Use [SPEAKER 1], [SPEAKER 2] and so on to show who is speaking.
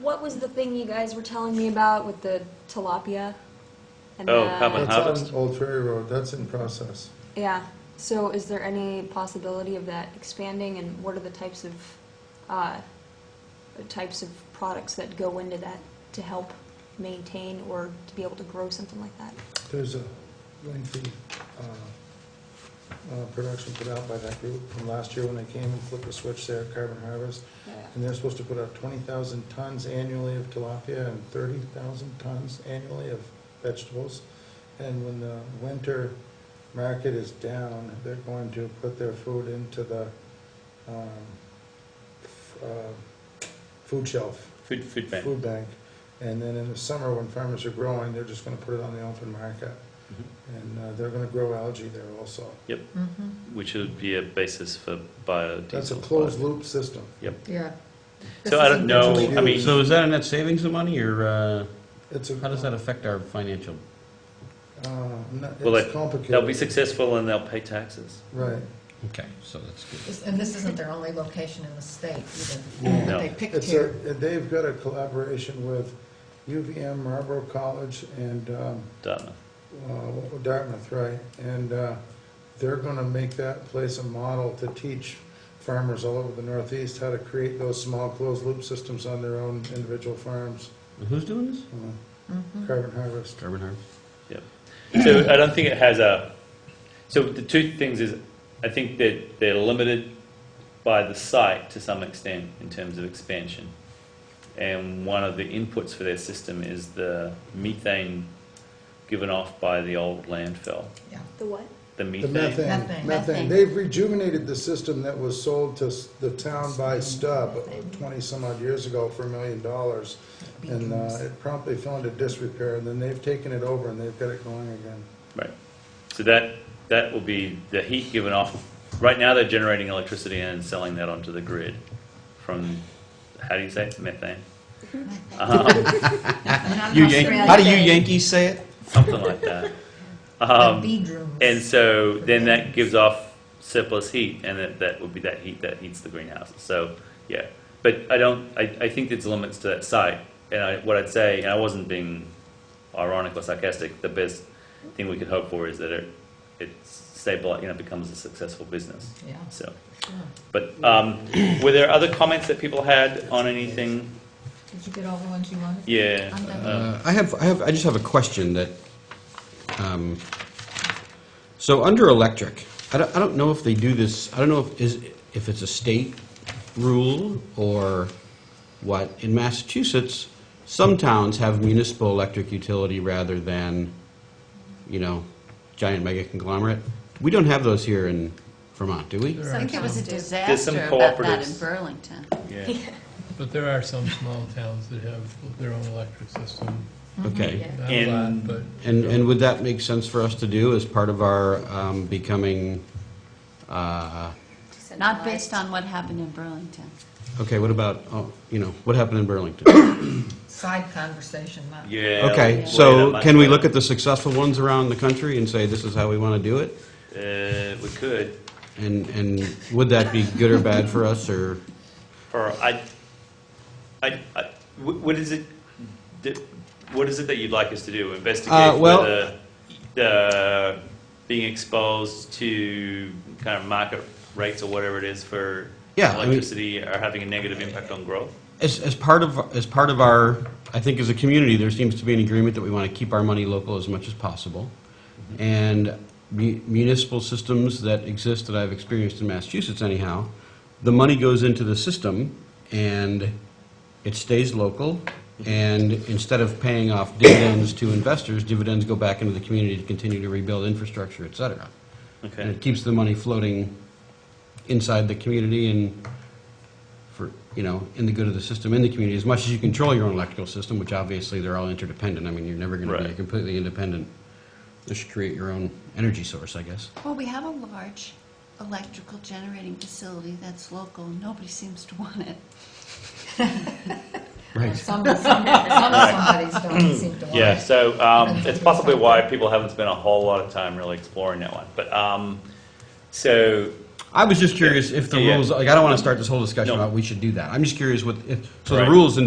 [SPEAKER 1] what was the thing you guys were telling me about with the tilapia? And
[SPEAKER 2] Oh,
[SPEAKER 1] the-
[SPEAKER 2] how about-
[SPEAKER 3] That's
[SPEAKER 2] harvest.
[SPEAKER 3] on Old Ferry Road, that's in process.
[SPEAKER 1] Yeah, so is there any possibility of that expanding, and what are the types of, uh, types of products that go into that to help maintain or to be able to grow something like that?
[SPEAKER 3] There's a lengthy uh, uh, production put out by that group from last year when they came and flipped the switch there at Carbon Harvest. And they're supposed to put out 20,000 tons annually of tilapia and 30,000 tons annually of vegetables. And when the winter market is down, they're going to put their food into the um, f- uh, food shelf.
[SPEAKER 2] Food, food bank.
[SPEAKER 3] food bank. And then in the summer, when farmers are growing, they're just gonna put it on the open market.
[SPEAKER 2] Mhm.
[SPEAKER 3] And uh, they're gonna grow algae there also.
[SPEAKER 4] Mm-hmm.
[SPEAKER 5] Mhm.
[SPEAKER 2] Which would be a basis for biodiesel.
[SPEAKER 3] That's a closed loop system.
[SPEAKER 5] Yeah. This
[SPEAKER 2] So I
[SPEAKER 5] is
[SPEAKER 2] don't know,
[SPEAKER 3] That's
[SPEAKER 2] I mean,
[SPEAKER 3] huge.
[SPEAKER 4] So is that a net savings of money, or uh,
[SPEAKER 3] It's a.
[SPEAKER 4] how does that affect our financial?
[SPEAKER 3] uh, no,
[SPEAKER 2] Well,
[SPEAKER 3] It's
[SPEAKER 2] it- they'll be
[SPEAKER 3] complicated.
[SPEAKER 2] successful and they'll pay taxes.
[SPEAKER 3] Right.
[SPEAKER 4] Okay, so that's good.
[SPEAKER 5] This- And this isn't their only location in the state either.
[SPEAKER 3] Yeah.
[SPEAKER 2] No.
[SPEAKER 5] They picked
[SPEAKER 3] It's a,
[SPEAKER 5] here.
[SPEAKER 3] they've got a collaboration with UVM, Marlboro College, and um,
[SPEAKER 2] Dartmouth.
[SPEAKER 3] uh, Dartmouth, right? And uh, they're gonna make that place a model to teach farmers all over the Northeast how to create those small closed loop systems on their own individual farms.
[SPEAKER 4] And Who's doing this?
[SPEAKER 3] Uh,
[SPEAKER 5] Mhm.
[SPEAKER 3] Carbon harvest.
[SPEAKER 4] Carbon Harvest.
[SPEAKER 2] So I don't think it has a, so the two things is, I think that they're limited by the site to some extent in terms of expansion. And one of the inputs for their system is the methane given off by the old landfill,
[SPEAKER 5] Yeah.
[SPEAKER 1] The what?
[SPEAKER 2] the
[SPEAKER 3] The
[SPEAKER 2] methane.
[SPEAKER 5] Methane.
[SPEAKER 3] methane, methane.
[SPEAKER 6] Methane.
[SPEAKER 3] They've rejuvenated the system that was sold to s- the town by Stubb twenty-some odd years ago for a million dollars. And uh,
[SPEAKER 5] Beacons.
[SPEAKER 3] it promptly fell into disrepair, and then they've taken it over and they've got it going again.
[SPEAKER 2] Right. So that, that will be the heat given off. Right now, they're generating electricity and selling that onto the grid from, how do you say, it? methane? Um,
[SPEAKER 6] Not
[SPEAKER 4] Ah, You
[SPEAKER 6] an
[SPEAKER 4] Yan-
[SPEAKER 6] Australian
[SPEAKER 4] how do you
[SPEAKER 6] thing.
[SPEAKER 4] Yankees say it?
[SPEAKER 2] Something like that.
[SPEAKER 5] The
[SPEAKER 2] Um,
[SPEAKER 5] Beadrooms.
[SPEAKER 2] And so then that gives off surplus heat, and that, that would be that heat that heats the greenhouse. So, yeah. But I don't, I, I think there's limits to that site. And I, what I'd say, and I wasn't being ironic or sarcastic, the best thing we could hope for is that it, it stabilizes, you know, becomes a successful business.
[SPEAKER 5] Yeah.
[SPEAKER 2] So,
[SPEAKER 5] sure.
[SPEAKER 2] but um, were there other comments that people had on anything?
[SPEAKER 5] Did you get all the ones you wanted?
[SPEAKER 2] Yeah.
[SPEAKER 5] I'm done.
[SPEAKER 2] um,
[SPEAKER 4] Uh, I have, I have, I just have a question that, um, so under electric, I don't, I don't know if they do this, I don't know if, is, if it's a state rule or what. In Massachusetts, some towns have municipal electric utility rather than, you know, giant mega conglomerate. We don't have those here in Vermont, do we?
[SPEAKER 7] There
[SPEAKER 6] I
[SPEAKER 7] are
[SPEAKER 6] think there was a
[SPEAKER 7] some,
[SPEAKER 2] There's some
[SPEAKER 6] disaster about that in
[SPEAKER 2] cooperatives.
[SPEAKER 6] Burlington.
[SPEAKER 2] Yeah.
[SPEAKER 7] but there are some small towns that have their own electric system.
[SPEAKER 4] Okay.
[SPEAKER 7] Not a
[SPEAKER 2] In-
[SPEAKER 7] lot, but
[SPEAKER 4] And, and would that make sense for us to do as part of our um, becoming, uh,
[SPEAKER 6] Not based on what happened in Burlington.
[SPEAKER 4] okay, what about, oh, you know, what happened in Burlington?
[SPEAKER 5] Side conversation, not.
[SPEAKER 2] Yeah.
[SPEAKER 4] Okay,
[SPEAKER 2] like, way
[SPEAKER 4] so
[SPEAKER 2] that
[SPEAKER 4] can we
[SPEAKER 2] much.
[SPEAKER 4] look at the successful ones around the country and say, this is how we want to do it?
[SPEAKER 2] Uh, we could.
[SPEAKER 4] And, and would that be good or bad for us, or,
[SPEAKER 2] Or I, I, I- wh- what is it, that- what is it that you'd like us to do?
[SPEAKER 4] Uh,
[SPEAKER 2] Investigate
[SPEAKER 4] well-
[SPEAKER 2] whether the, being exposed to kind of market rates or whatever it is for
[SPEAKER 4] Yeah, I mean-
[SPEAKER 2] electricity are having a negative impact on growth?
[SPEAKER 4] as, as part of, as part of our, I think as a community, there seems to be an agreement that we want to keep our money local as much as possible. And mu- municipal systems that exist that I've experienced in Massachusetts anyhow, the money goes into the system and it stays local. And instead of paying off dividends to investors, dividends go back into the community to continue to rebuild infrastructure, et cetera. And
[SPEAKER 2] Okay,
[SPEAKER 4] it keeps the money floating inside the community and for, you know, in the good of the system, in the community, as much as you control your own electrical system, which obviously they're all interdependent. I mean, you're never going to be
[SPEAKER 2] Right.
[SPEAKER 4] completely independent. Just create your own energy source, I guess.
[SPEAKER 6] Well, we have a large electrical generating facility that's local. Nobody seems to want it.
[SPEAKER 4] Right.
[SPEAKER 5] Some, some, some of somebody's don't seem to want.
[SPEAKER 2] yeah,
[SPEAKER 5] it.
[SPEAKER 2] so um, it's possibly why people haven't spent a whole lot of time really exploring that one. But, um, so,
[SPEAKER 4] I was just curious if the
[SPEAKER 2] Yeah.
[SPEAKER 4] rules, like, I don't want to start this whole discussion
[SPEAKER 2] No.
[SPEAKER 4] about we should do that. I'm just curious what, if, so the
[SPEAKER 2] Right.
[SPEAKER 4] rules involve